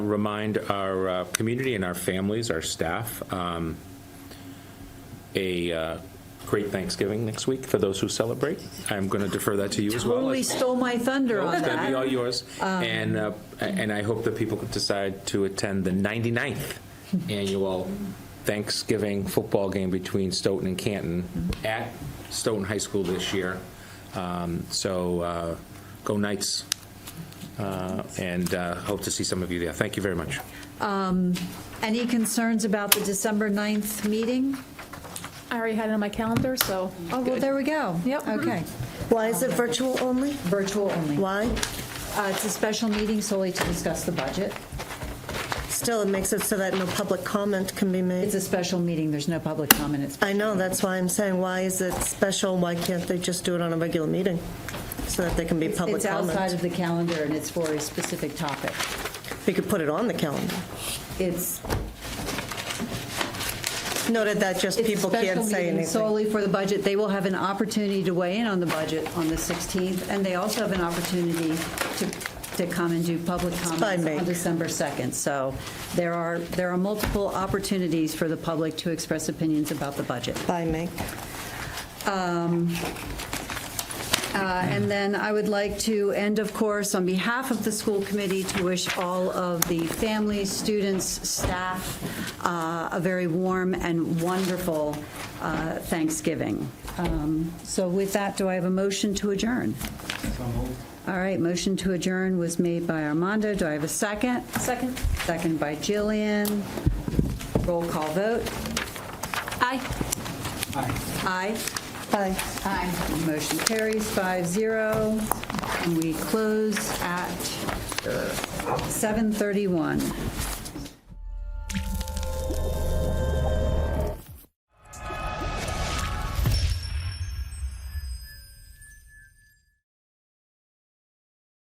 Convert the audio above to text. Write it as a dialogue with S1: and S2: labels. S1: remind our uh, community and our families, our staff, um, a uh, great Thanksgiving next week for those who celebrate. I'm going to defer that to you as well.
S2: Totally stole my thunder
S1: No,
S2: on
S1: It's going to be all
S2: that. Um,
S1: yours. And, uh, and I hope that people decide to attend the 99th annual Thanksgiving football game between Stoughton and Canton at Stoughton High School this year. Um, So uh, go Knights, Uh, and uh, hope to see some of you there. Thank you very much.
S2: Any concerns about the December 9th meeting?
S3: I already had it on my calendar, so.
S2: Oh, well, there we go.
S3: Yep.
S2: Okay.
S4: Why is it virtual only?
S2: Mm-hmm. Virtual only.
S4: Why?
S2: Uh, It's a special meeting solely to discuss the budget.
S4: Still, it makes it so that no public comment can be
S2: It's
S4: made.
S2: a special meeting, there's no public comment. It's-
S4: I know, that's why I'm saying, why is it special? Why can't they just do it on a regular meeting? So that there can be public
S2: It's outside
S4: comment?
S2: of the calendar and it's for a specific topic.
S4: We could put it on the calendar.
S2: It's
S4: Noted that just
S2: it's a
S4: people can't
S2: special
S4: say
S2: meeting
S4: anything.
S2: solely for the budget. They will have an opportunity to weigh in on the budget on the 16th, and they also have an opportunity to, to come and do public
S4: fine,
S2: comments
S4: Meg.
S2: on December 2nd. So there are, there are multiple opportunities for the public to express opinions about the budget.
S4: Bye, Meg.
S2: Uh, And then I would like to end, of course, on behalf of the school committee, to wish all of the families, students, staff, uh, a very warm and wonderful uh, Thanksgiving. Um, So with that, do I have a motion to adjourn? All right, motion to adjourn was made by Armando. Do I have a second? Second. Second by Jillian. Roll call vote. Aye. Aye.
S4: Bye.
S2: Aye. Motion carries five zero, uh, and we close at 7:31.